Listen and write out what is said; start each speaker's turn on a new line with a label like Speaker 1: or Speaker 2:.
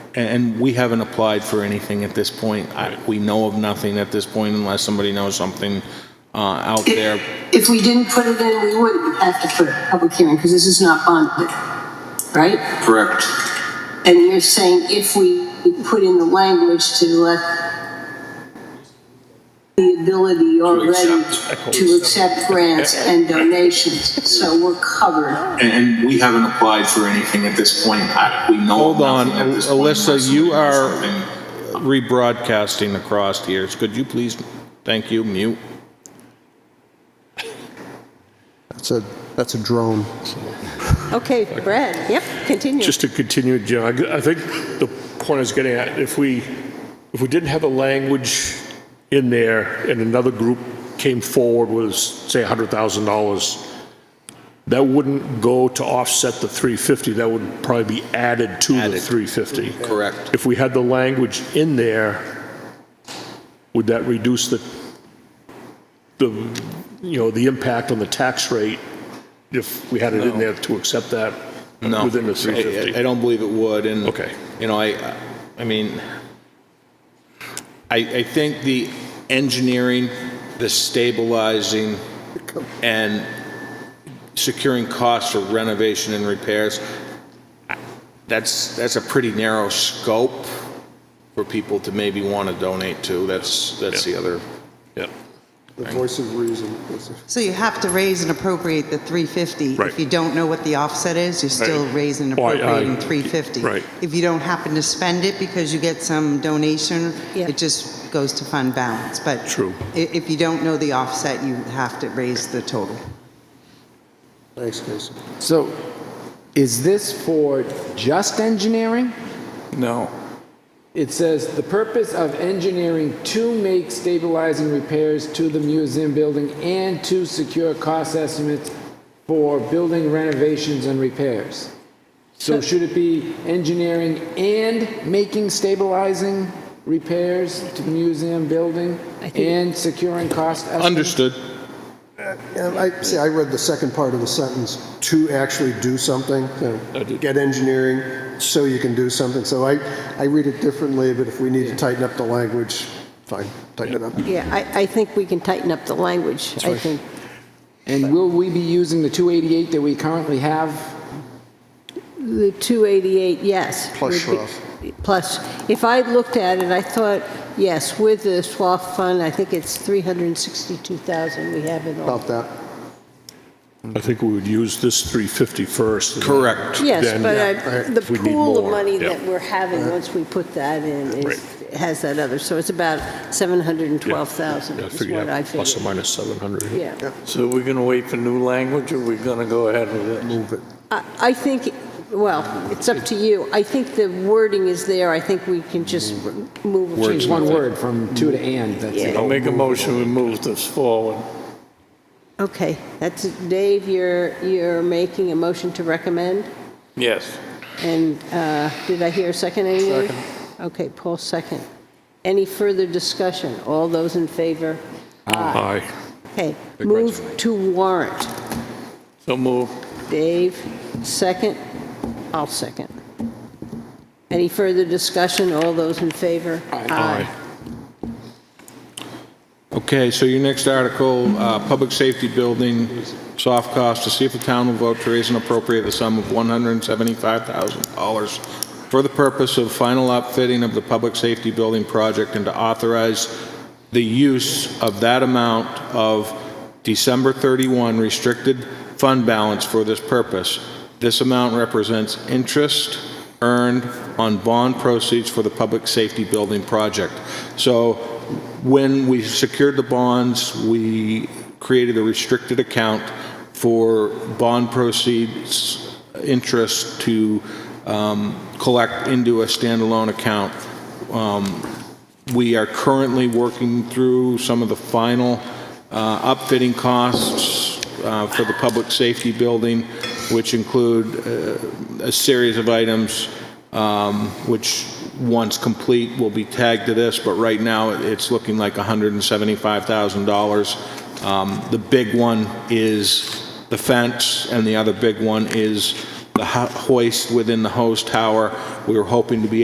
Speaker 1: And- And we haven't applied for anything at this point. I- We know of nothing at this point unless somebody knows something uh, out there.
Speaker 2: If we didn't put it in, we wouldn't have to put a public hearing, because this is not bonded, right?
Speaker 3: Correct.
Speaker 2: And you're saying if we put in the language to let the ability already
Speaker 3: accept.
Speaker 2: to accept grants and donations, so we're covered.
Speaker 1: And- And we haven't applied for anything at this point. I- We know of
Speaker 4: Hold on,
Speaker 1: nothing at this point.
Speaker 4: Alyssa,
Speaker 1: unless
Speaker 4: you
Speaker 1: somebody knows
Speaker 4: are-
Speaker 1: something.
Speaker 4: rebroadcasting across here. Could you please, thank you, mute?
Speaker 5: That's a, that's a drone.
Speaker 6: Okay, Brad, yep, continue.
Speaker 7: Just to continue, Jim, I I think the point I was getting at, if we, if we didn't have the language in there and another group came forward with, say, $100,000, that wouldn't go to offset the 350, that would probably be added to the 350.
Speaker 3: Correct.
Speaker 7: If we had the language in there, would that reduce the, the, you know, the impact on the tax rate if we had it in there to accept that
Speaker 4: No.
Speaker 7: within the
Speaker 4: I- I-
Speaker 7: 350?
Speaker 4: I don't believe it would, and.
Speaker 7: Okay.
Speaker 4: You know, I, I mean, I, I think the engineering, the stabilizing, and securing costs for renovation and repairs, that's, that's a pretty narrow scope for people to maybe want to donate to. That's, that's the other.
Speaker 7: Yep.
Speaker 5: The voice of reason.
Speaker 8: So you have to raise and appropriate the 350.
Speaker 7: Right.
Speaker 8: If you don't know what the offset is, you're still
Speaker 7: Right.
Speaker 8: raising and
Speaker 7: Oh, I- I-
Speaker 8: appropriating 350.
Speaker 7: Right.
Speaker 8: If you don't happen to spend it because you get some donation,
Speaker 6: Yeah.
Speaker 8: it just goes to fund balance. But
Speaker 7: True.
Speaker 8: i- if you don't know the offset, you have to raise the total.
Speaker 5: Thanks, Casey.
Speaker 9: So is this for just engineering?
Speaker 3: No.
Speaker 9: It says, "The purpose of engineering to make stabilizing repairs to the museum building and to secure cost estimates for building renovations and repairs." So should it be engineering and making stabilizing repairs to the museum building and securing cost estimates?
Speaker 4: Understood.
Speaker 5: And I, see, I read the second part of the sentence, to actually do something, you know, get engineering so you can do something. So I, I read it differently, but if we need to tighten up the language, fine, tighten it up.
Speaker 6: Yeah, I, I think we can tighten up the language, I think.
Speaker 9: And will we be using the 288 that we currently have
Speaker 6: The 288, yes.
Speaker 5: Plus
Speaker 6: would be- Plus, if I looked at it, I thought, yes, with the SWAF fund, I think it's 362,000 we have in all.
Speaker 5: About that.
Speaker 7: I think we would use this 350 first. and
Speaker 4: Correct.
Speaker 6: Yes,
Speaker 7: then-
Speaker 6: but I- the
Speaker 7: If we need
Speaker 6: pool of
Speaker 7: more,
Speaker 6: money
Speaker 7: yeah.
Speaker 6: that we're having, once we put that in,
Speaker 7: Right.
Speaker 6: is, has that other, so it's about 712,000
Speaker 7: Yeah, I
Speaker 6: is
Speaker 7: figured
Speaker 6: what
Speaker 7: that
Speaker 6: I
Speaker 7: Plus or
Speaker 6: figured.
Speaker 7: minus 700.
Speaker 6: Yeah.
Speaker 3: So we're going to wait for new language, or we're going to go ahead with it?
Speaker 5: Move it.
Speaker 6: I I think, well, it's up to you. I think the wording is there, I think we can just
Speaker 7: Mm-hmm.
Speaker 6: move. it.
Speaker 9: Change one word from to to and, that's it.
Speaker 3: I'll make a motion, we move this forward.
Speaker 6: Okay, that's, Dave, you're, you're making a motion to recommend,
Speaker 3: Yes.
Speaker 6: and uh, did I hear a second anyway? Okay, Paul, second. Any further discussion? All those in favor?
Speaker 7: Aye.
Speaker 6: Okay, move to warrant.
Speaker 3: So move.
Speaker 6: Dave, second. I'll second. Any further discussion? All those in favor? Aye.
Speaker 4: Okay, so your next article, uh, Public Safety Building, soft cost, to see if the town will vote to raise and appropriate the sum of $175,000 for the purpose of final outfitting of the Public Safety Building project and to authorize the use of that amount of December 31 restricted fund balance for this purpose. This amount represents interest earned on bond proceeds for the Public Safety Building project. So when we secured the bonds, we created a restricted account for bond proceeds interest to um, collect into a standalone account. Um, We are currently working through some of the final uh, upfitting costs uh, for the public safety building, which include uh, a series of items um, which, once complete, will be tagged to this, but right now, it- it's looking like $175,000. Um, The big one is the fence, and the other big one is the ho- hoist within the hose tower. We were hoping to be